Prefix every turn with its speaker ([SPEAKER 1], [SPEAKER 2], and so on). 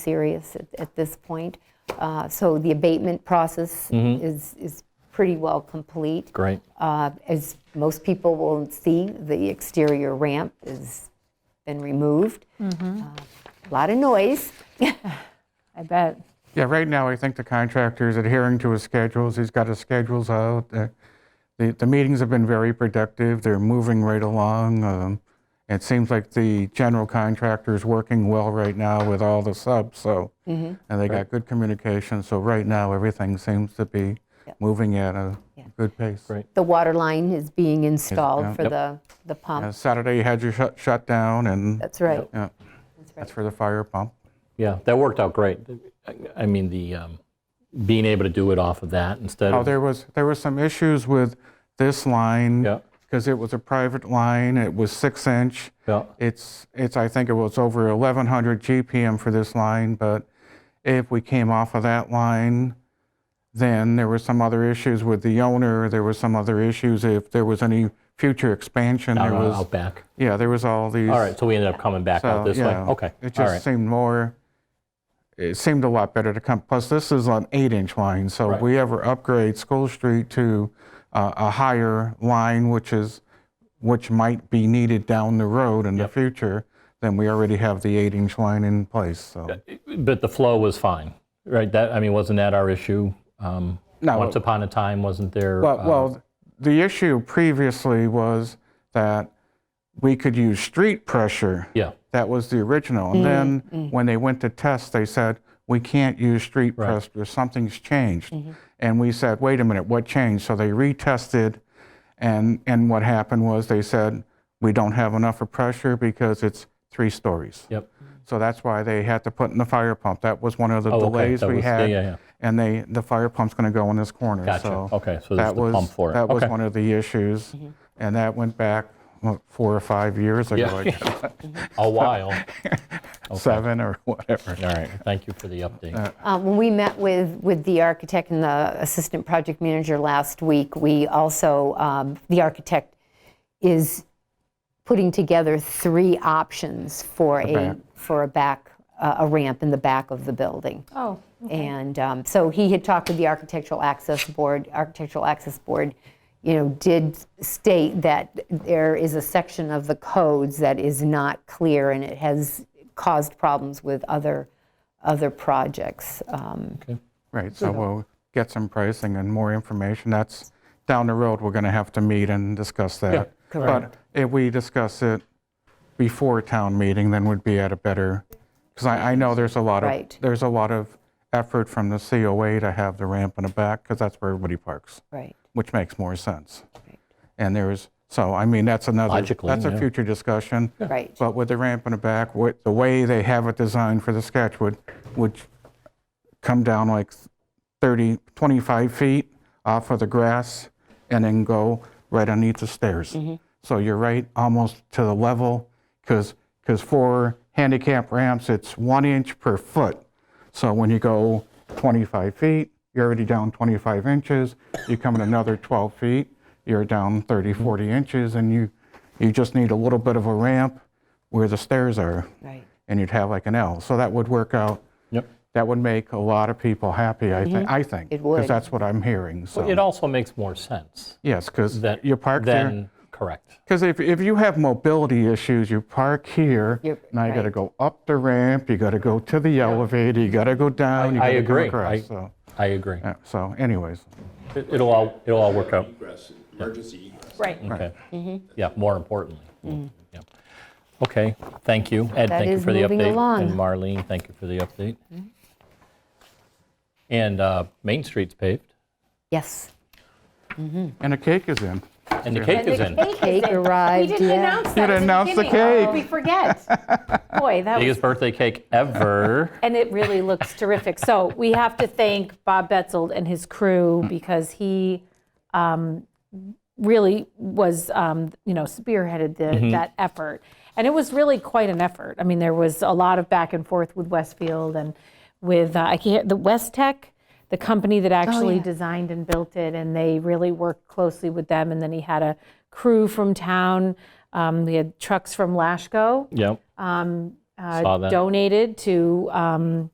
[SPEAKER 1] serious at- at this point. Uh, So the abatement process
[SPEAKER 2] Mm-hmm.
[SPEAKER 1] is is pretty well complete.
[SPEAKER 3] Great.
[SPEAKER 1] Uh, As most people will see, the exterior ramp has been removed. Uh, A lot of noise.
[SPEAKER 4] I bet.
[SPEAKER 2] Yeah, right now, I think the contractor is adhering to his schedules. He's got his schedules out. Uh, The, the meetings have been very productive. They're moving right along. Um, It seems like the general contractor is working well right now with all the subs, so,
[SPEAKER 1] Mm-hmm.
[SPEAKER 2] and they got good communication. So right now, everything seems to be moving at a good pace.
[SPEAKER 3] Great.
[SPEAKER 1] The water line is being
[SPEAKER 2] yeah.
[SPEAKER 1] installed for
[SPEAKER 2] Yep.
[SPEAKER 1] the the
[SPEAKER 2] Uh,
[SPEAKER 1] pump.
[SPEAKER 2] Saturday, you had your shut, shutdown, and
[SPEAKER 1] That's right.
[SPEAKER 2] yeah, that's for the fire pump.
[SPEAKER 3] Yeah, that worked out great. I- I mean, the, um, being able to do it off of that instead
[SPEAKER 2] Oh,
[SPEAKER 3] of,
[SPEAKER 2] there was, there were some issues with this line.
[SPEAKER 3] Yeah.
[SPEAKER 2] Because it was a private line, it was six inch.
[SPEAKER 3] Yeah.
[SPEAKER 2] It's, it's, I think it was over 1,100 GPM for this line, but if we came off of that line, then there were some other issues with the owner, there were some other issues if there was any future expansion,
[SPEAKER 3] out
[SPEAKER 2] there was,
[SPEAKER 3] out back.
[SPEAKER 2] yeah, there was all these.
[SPEAKER 3] All right, so we ended up coming back
[SPEAKER 2] So,
[SPEAKER 3] out this way.
[SPEAKER 2] yeah,
[SPEAKER 3] Okay,
[SPEAKER 2] It
[SPEAKER 3] all
[SPEAKER 2] just
[SPEAKER 3] right.
[SPEAKER 2] seemed more, it seemed a lot better to come, plus this is an eight-inch line, so if
[SPEAKER 3] Right.
[SPEAKER 2] we ever upgrade School Street to uh, a higher line, which is, which might be needed down the road in the future, then we already have the eight-inch line in place, so.
[SPEAKER 3] But the flow was fine, right? That, I mean, wasn't that our issue? Um,
[SPEAKER 2] No.
[SPEAKER 3] Once upon a time, wasn't there?
[SPEAKER 2] Well,
[SPEAKER 3] uh,
[SPEAKER 2] well, the issue previously was that we could use street pressure.
[SPEAKER 3] Yeah,
[SPEAKER 2] That was the original. And then
[SPEAKER 3] Mm-hmm.
[SPEAKER 2] when they went to test, they said, we can't use street press, or something's changed.
[SPEAKER 3] Mm-hmm.
[SPEAKER 2] And we said, wait a minute, what changed? So they retested, and, and what happened was they said, we don't have enough of pressure because it's three stories.
[SPEAKER 3] yep.
[SPEAKER 2] So that's why they had to put in the fire pump. That was one of the
[SPEAKER 3] Oh, okay,
[SPEAKER 2] delays
[SPEAKER 3] that
[SPEAKER 2] we
[SPEAKER 3] was- yeah,
[SPEAKER 2] had.
[SPEAKER 3] yeah, yeah.
[SPEAKER 2] And they, the fire pump's going to go in this corner.
[SPEAKER 3] Gotcha.
[SPEAKER 2] So
[SPEAKER 3] Okay, so there's
[SPEAKER 2] that
[SPEAKER 3] the
[SPEAKER 2] was,
[SPEAKER 3] pump for it.
[SPEAKER 2] That was
[SPEAKER 3] Okay. Mm-hmm.
[SPEAKER 2] one of the issues, and that went back what, four or five years ago, I guess,
[SPEAKER 3] A while.
[SPEAKER 2] seven or whatever.
[SPEAKER 3] All right, thank you for the update.
[SPEAKER 1] Uh, When we met with, with the architect and the assistant project manager last week, we also, um, the architect is putting together three options for a,
[SPEAKER 2] back.
[SPEAKER 1] for a back, uh, a ramp in the back of the building.
[SPEAKER 4] Oh,
[SPEAKER 1] And um, so he had talked with the Architectural Access Board. Architectural Access Board, you know, did state that there is a section of the codes that is not clear, and it has caused problems with other, other projects. Um,
[SPEAKER 2] Right, so we'll get some pricing and more information. That's down the road, we're going to have to meet and discuss that. But
[SPEAKER 1] correct.
[SPEAKER 2] if we discuss it before town meeting, then we'd be at a better, because I, I know there's a lot of,
[SPEAKER 1] Right.
[SPEAKER 2] there's a lot of effort from the COA to have the ramp in the back, because that's where everybody parks,
[SPEAKER 1] Right.
[SPEAKER 2] which makes more sense. And there is, so, I mean, that's another,
[SPEAKER 3] Logically,
[SPEAKER 2] that's a
[SPEAKER 3] yeah.
[SPEAKER 2] future discussion.
[SPEAKER 1] Right.
[SPEAKER 2] But with the ramp in the back, what, the way they have it designed for the sketch would, would come down like 30, 25 feet off of the grass and then go right underneath the stairs. So you're right, almost to the level, because, because for handicap ramps, it's one inch per foot. So when you go 25 feet, you're already down 25 inches. You come in another 12 feet, you're down 30, 40 inches, and you, you just need a little bit of a ramp where the stairs are,
[SPEAKER 1] Right.
[SPEAKER 2] and you'd have like an L. So that would work out
[SPEAKER 3] Yep.
[SPEAKER 2] that would make a lot of people happy, I think, I think.
[SPEAKER 1] Mm-hmm. It would.
[SPEAKER 2] Because that's what I'm hearing, so.
[SPEAKER 3] It also makes more sense
[SPEAKER 2] Yes, because
[SPEAKER 3] that.
[SPEAKER 2] you park there.
[SPEAKER 3] Then, correct.
[SPEAKER 2] Because if, if you have mobility issues, you park here.
[SPEAKER 1] You're-
[SPEAKER 2] Now you got to
[SPEAKER 1] right.
[SPEAKER 2] go up the ramp, you got to go to the elevator, you got to go down. you
[SPEAKER 3] I
[SPEAKER 2] gotta come
[SPEAKER 3] agree.
[SPEAKER 2] across,
[SPEAKER 3] I-
[SPEAKER 2] So,
[SPEAKER 3] I agree.
[SPEAKER 2] yeah, so anyways,
[SPEAKER 3] It- It'll all, it'll all work out.
[SPEAKER 5] egress, emergency egress.
[SPEAKER 4] right.
[SPEAKER 3] Okay.
[SPEAKER 1] Mm-hmm.
[SPEAKER 3] Yeah, more importantly. Yeah. Okay, thank you. Ed,
[SPEAKER 1] That
[SPEAKER 3] thank you
[SPEAKER 1] is
[SPEAKER 3] for the update.
[SPEAKER 1] moving along. Mm-hmm.
[SPEAKER 3] And Marlene, thank you for the update. And uh, Main Street's paved,
[SPEAKER 1] Yes.
[SPEAKER 2] and a cake is in.
[SPEAKER 3] and the cake is in.
[SPEAKER 1] Cake
[SPEAKER 4] We
[SPEAKER 1] arrived,
[SPEAKER 4] didn't
[SPEAKER 1] yeah.
[SPEAKER 4] announce that.
[SPEAKER 2] didn't
[SPEAKER 4] at
[SPEAKER 2] announce the
[SPEAKER 4] beginning.
[SPEAKER 2] cake.
[SPEAKER 4] We forget. Boy, that was,
[SPEAKER 3] Biggest birthday cake ever.
[SPEAKER 4] and it really looks terrific. So we have to thank Bob Betzold and his
[SPEAKER 3] Mm.
[SPEAKER 4] crew because he um, really was, um, you know, spearheaded
[SPEAKER 3] Mm-hmm.
[SPEAKER 4] the- that effort. And it was really quite an effort. I mean, there was a lot of back and forth with Westfield and with, uh, I can't, the West Tech, the company
[SPEAKER 3] Oh,
[SPEAKER 4] that actually designed and built it, and they really worked closely with them. And then he had a crew from town. Um, We had trucks from Lashko
[SPEAKER 3] Yep. Saw that.
[SPEAKER 4] donated uh, to um,